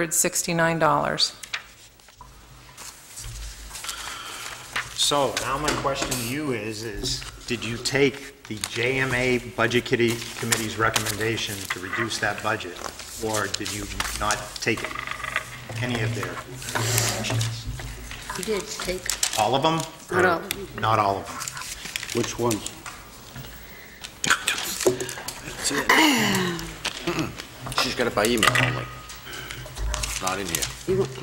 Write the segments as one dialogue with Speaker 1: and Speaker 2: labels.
Speaker 1: $3,636,169.
Speaker 2: So now my question to you is, is did you take the JMA Budget Kitty- Committee's recommendation to reduce that budget? Or did you not take any of their suggestions?
Speaker 3: We did take,
Speaker 2: All of them?
Speaker 3: Not all of them.
Speaker 2: Not all of them.
Speaker 4: Which ones?
Speaker 5: She's got it by email only. It's not in here,
Speaker 3: you want-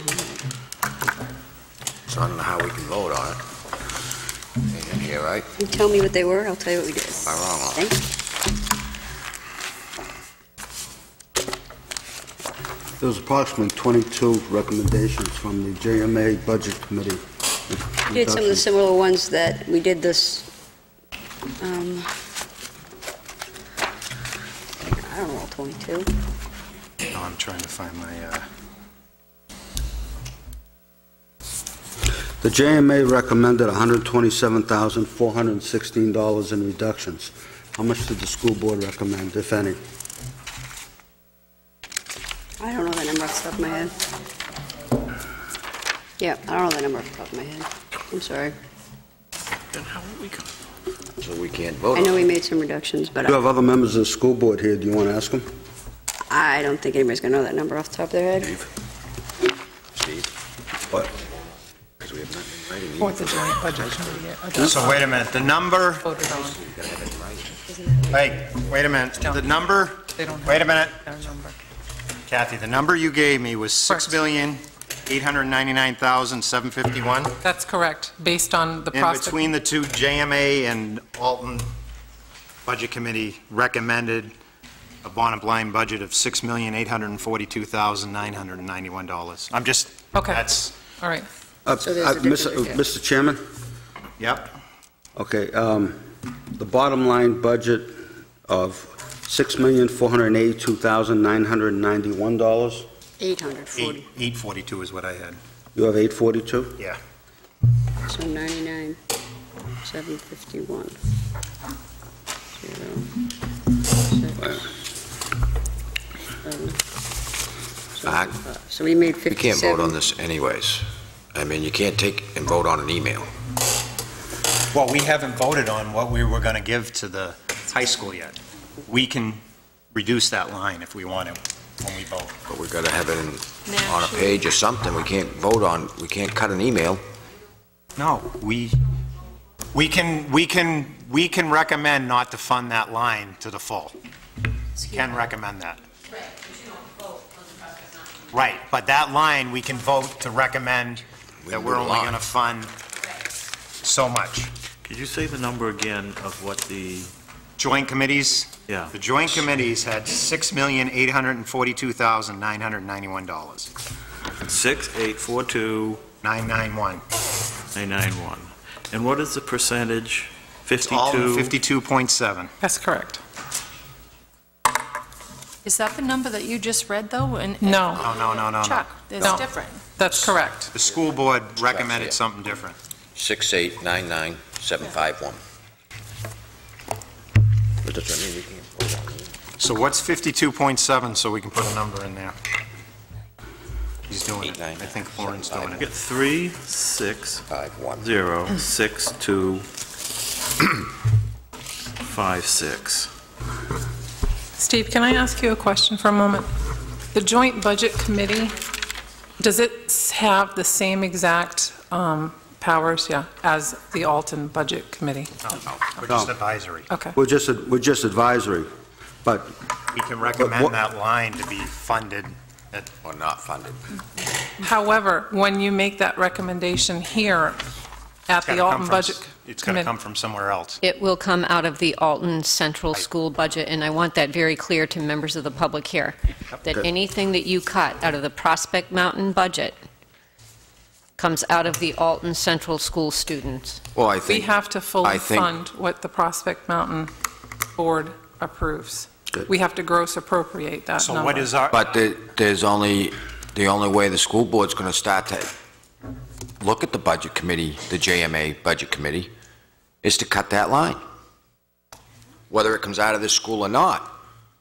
Speaker 5: so I don't know how we can vote on it. Ain't in here, right?
Speaker 3: you tell me what they were, I'll tell you what we did.
Speaker 5: Am I wrong on it?
Speaker 3: Thank you.
Speaker 4: There was approximately 22 recommendations from the JMA Budget
Speaker 3: We
Speaker 4: Committee.
Speaker 3: Did some of the
Speaker 4: Reduction.
Speaker 3: similar ones that, we did this, um, I don't know, 22.
Speaker 2: No, I'm trying to find my, uh,
Speaker 4: The JMA recommended $127,416 in reductions. How much did the school board recommend, if any?
Speaker 3: I don't know that number off the top of my head. Yeah, I don't know that number off the top of my head. I'm sorry.
Speaker 5: Then how are we gonna? So we can't vote
Speaker 3: I
Speaker 5: on
Speaker 3: know
Speaker 5: it.
Speaker 3: we made some reductions, but
Speaker 4: You have
Speaker 3: I-
Speaker 4: other members of the school board here, do you want to ask them?
Speaker 3: I don't think anybody's going to know that number off the top of their head.
Speaker 5: Steve? Steve?
Speaker 4: What?
Speaker 5: Because we have nothing in writing. either.
Speaker 1: Or the joint budget committee. uh, the
Speaker 2: so wait a minute, the number,
Speaker 1: Voted on,
Speaker 5: We gotta have it in writing.
Speaker 2: hey, wait a minute, the number,
Speaker 1: they don't have.
Speaker 2: Wait a minute.
Speaker 1: their number.
Speaker 2: Kathy, the number you gave me was six
Speaker 1: Correct.
Speaker 2: million eight hundred ninety-nine thousand seven fifty-one.
Speaker 1: That's correct, based on the
Speaker 2: In
Speaker 1: prospect.
Speaker 2: between the two, JMA and Alton Budget Committee recommended a bottom line budget of $6,842,991. I'm just,
Speaker 1: Okay,
Speaker 2: that's,
Speaker 1: all right.
Speaker 4: Uh,
Speaker 3: So there's
Speaker 4: uh,
Speaker 3: a difference
Speaker 4: Mr.
Speaker 3: right there.
Speaker 4: Mr. Chairman?
Speaker 2: yep,
Speaker 4: Okay, um, the bottom line budget of $6,482,991.
Speaker 3: 840,
Speaker 2: eight- 842 is what I had.
Speaker 4: You have 842?
Speaker 2: Yeah.
Speaker 3: so 99, 751. Zero, six, seven,
Speaker 5: Back.
Speaker 3: So we made 57.
Speaker 5: We can't vote on this anyways. I mean, you can't take and vote on an email.
Speaker 2: Well, we haven't voted on what we were going to give to the high school yet. We can reduce that line if we want to, when we vote.
Speaker 5: But we gotta have it in, on a page or something. We can't vote on, we can't cut an email.
Speaker 2: No, we, we can, we can, we can recommend not to fund that line to the full. Can recommend that. Right, but that line, we can vote to recommend
Speaker 5: We
Speaker 2: that
Speaker 5: can
Speaker 2: we're
Speaker 5: do a
Speaker 2: only
Speaker 5: line.
Speaker 2: going to fund so much.
Speaker 6: Could you say the number again of what the,
Speaker 2: Joint committees,
Speaker 6: yeah,
Speaker 2: the joint committees had $6,842,991,
Speaker 6: six eight four two
Speaker 2: 991.
Speaker 6: nine nine one, And what is the percentage?
Speaker 2: It's all
Speaker 6: 52?
Speaker 2: 52.7.
Speaker 1: That's correct.
Speaker 7: Is that the number that you just read, though? And-
Speaker 1: No,
Speaker 2: No, no, no, no, no.
Speaker 7: Chuck,
Speaker 1: No.
Speaker 7: it's different.
Speaker 1: that's correct.
Speaker 2: The school board recommended something different.
Speaker 5: Six eight nine nine seven five one. But that's what I mean, we can't vote on it.
Speaker 2: So what's 52.7, so we can put a number in there? He's doing it. I think Lauren's doing
Speaker 6: I
Speaker 2: it.
Speaker 6: get three, six,
Speaker 5: Five one.
Speaker 6: zero, six, two, five, six.
Speaker 1: Steve, can I ask you a question for a moment? The joint budget committee, does it s- have the same exact um, powers, yeah, as the Alton Budget Committee?
Speaker 2: No, no, We're just advisory.
Speaker 1: Okay.
Speaker 4: We're just, we're just advisory, but
Speaker 2: We can
Speaker 4: what-
Speaker 2: recommend that line to be funded.
Speaker 5: Or not funded.
Speaker 1: However, when you make that recommendation here at
Speaker 2: It's gotta
Speaker 1: the
Speaker 2: come
Speaker 1: Alton
Speaker 2: from-
Speaker 1: Budget
Speaker 2: It's going to
Speaker 1: Committee,
Speaker 2: come from somewhere else.
Speaker 8: It will come out of the Alton Central School budget, and I want that very clear to members of the public here, that anything that you cut out of the Prospect Mountain budget comes out of the Alton Central School students.
Speaker 5: Well, I
Speaker 1: we
Speaker 5: think,
Speaker 1: have to fully
Speaker 5: I think-
Speaker 1: fund what the Prospect Mountain Board approves.
Speaker 4: Good.
Speaker 1: We have to gross appropriate that number.
Speaker 2: So what is our,
Speaker 5: but the- there's only, the only way the school board's going to start to look at the budget committee, the JMA budget committee, is to cut that line, whether it comes out of this school or not.